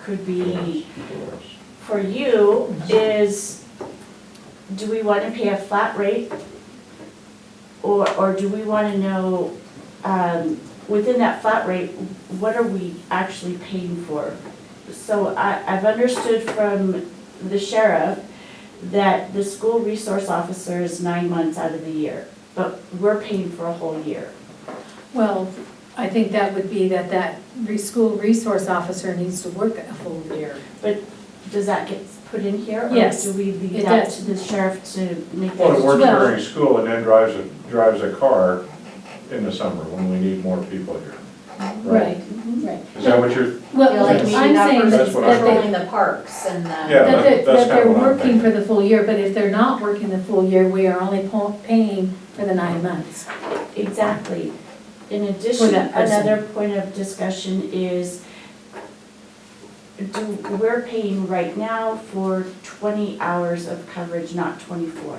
could be for you is, do we wanna pay a flat rate? Or, or do we wanna know, um, within that flat rate, what are we actually paying for? So I, I've understood from the sheriff that the school resource officer is nine months out of the year, but we're paying for a whole year. Well, I think that would be that that re- school resource officer needs to work a full year. Does that get put in here? Yes, Or do we leave it that does. to the sheriff to make Well, that? it works Well- during school and then drives a, drives a car in the summer when we need more people here. Right. Right. Is that what you're, Feel Well, like I'm Yes. we should not saying That's that be what I that they, controlling the parks and the. Yeah, that they- that- that's that they're kinda what I'm working for thinking. the full year, but if they're not working the full year, we are only po- paying for the nine months. Exactly. In addition, that person. another point of discussion is, do, we're paying right now for twenty hours of coverage, not twenty-four.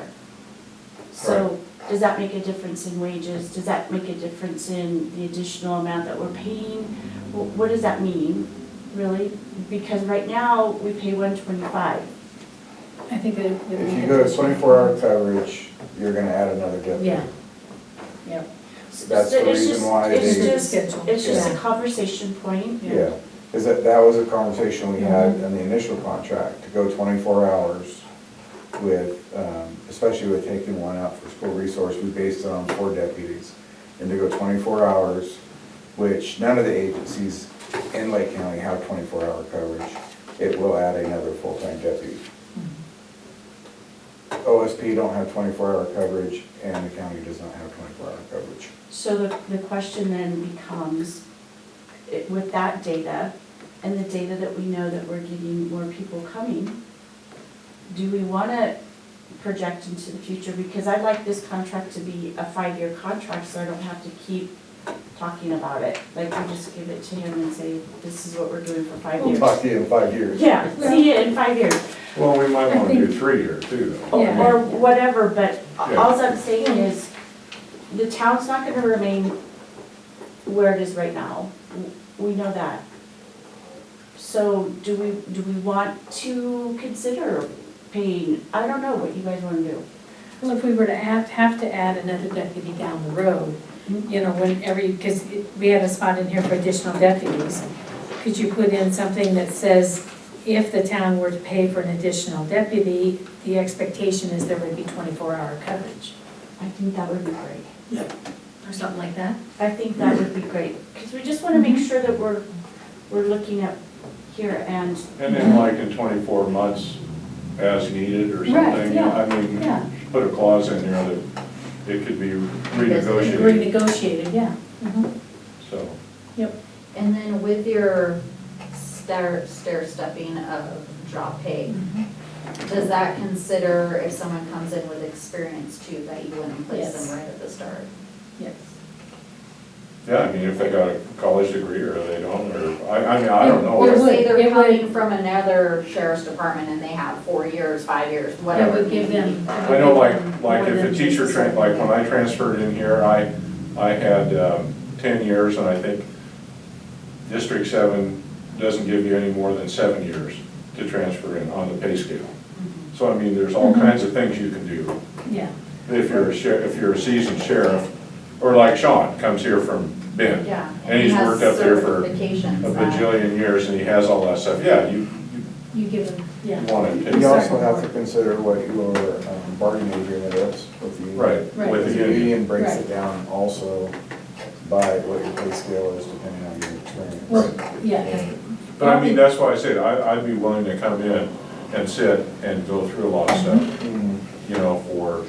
So, does that make a difference in wages? Does that make a difference in the additional amount that we're paying? Wh- What does that mean, really? Because right now, we pay one twenty-five. I think that. would make If you a go to difference. twenty-four hour coverage, you're gonna add another deputy. Yeah. That's the reason why It's they- just, Schedule. it's just a conversation point. Yeah, is that, that was a conversation we had in the initial contract, to go twenty-four hours with, um, especially with taking one out for school resource, we based it on four deputies. And to go twenty-four hours, which none of the agencies in Lake County have twenty-four hour coverage, it will add another full-time deputy. Mm-hmm. OSP don't have twenty-four hour coverage, and the county does not have twenty-four hour coverage. So the, the question then becomes, it- with that data, and the data that we know that we're getting more people coming, do we wanna project into the future? Because I'd like this contract to be a five-year contract, so I don't have to keep talking about it. Like, we just give it to him and say, this is what we're doing for five We'll years. talk to you in five years. Yeah, see you in five years. well, we might I wanna do think- three here too, though. Yeah. or whatever, but Yeah. alls I'm saying is, the town's not gonna remain where it is right now. We know that. So do we, do we want to consider paying, I don't know what you guys wanna do. Well, if we were to have, have to add another deputy down the road, you know, whenever, because we had a spot in here for additional deputies, could you put in something that says, if the town were to pay for an additional deputy, the expectation is there would be twenty-four hour coverage, I think that would be great. or something like that? I think that would be great, because we just wanna make Mhm. sure that we're, we're looking up here and, And then like in twenty-four months, as needed or Right, something, yeah, I mean, Yeah, put a clause in there that it could be renegotiated, renegotiated, yeah. Mhm. so. And then with your stair, stair stepping of drop pay, does that consider if someone comes in with experience too, that you wouldn't place Yes. them right at the start? Yes. Yeah, I mean, if they got a college degree or they don't, or, I, I mean, I don't Or It know. would- say they're it would- coming from another sheriff's department and they have four years, five years, That whatever. would give them. that would I know give like, them like more if than a teacher trained, like when I transferred in here, I, I had, um, ten years and I think District Seven doesn't give you any more than seven years to transfer in on the pay scale. So I mean, there's all Mhm. kinds of things you can do. Yeah, If you're a sheriff, if you're a seasoned sheriff, or like Sean, comes here from Ben, Yeah. And he's worked up there for a a bajillion years, and he has all that stuff, yeah, you, you give them, yeah, you want it, You also have to consider what your um, bargaining agreement is with the union. right, Right. with Because the the union. union breaks Right. it down also by what your pay scale is depending on your experience. well, yeah, 'cause But I mean, that's why I said, I, I'd be willing to come in and sit and go through a lot of Mm-hmm. stuff, Mhm. you know, for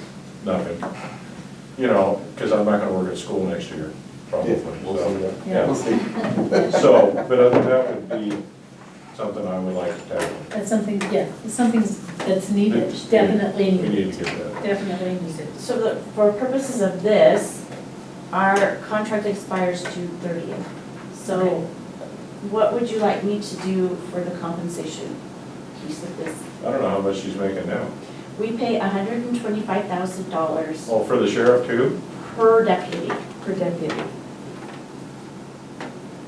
nothing. You know, because I'm not gonna work at school next year, probably, Yeah, we'll see so, that. yeah. We'll see. So, but other than that would be something I would like to tackle. That's something, yeah, it's something that's needed, It's- definitely We need needed, to get that. definitely needed. so the, for purposes of this, our contract expires June thirtieth. So Okay. what would you like me to do for the compensation piece of this? I don't know how much she's making now. We pay hundred and twenty-five thousand dollars Oh, for the sheriff too? per deputy. per deputy.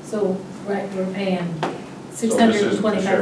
So, right, we're paying six this hundred isn't and the twenty-five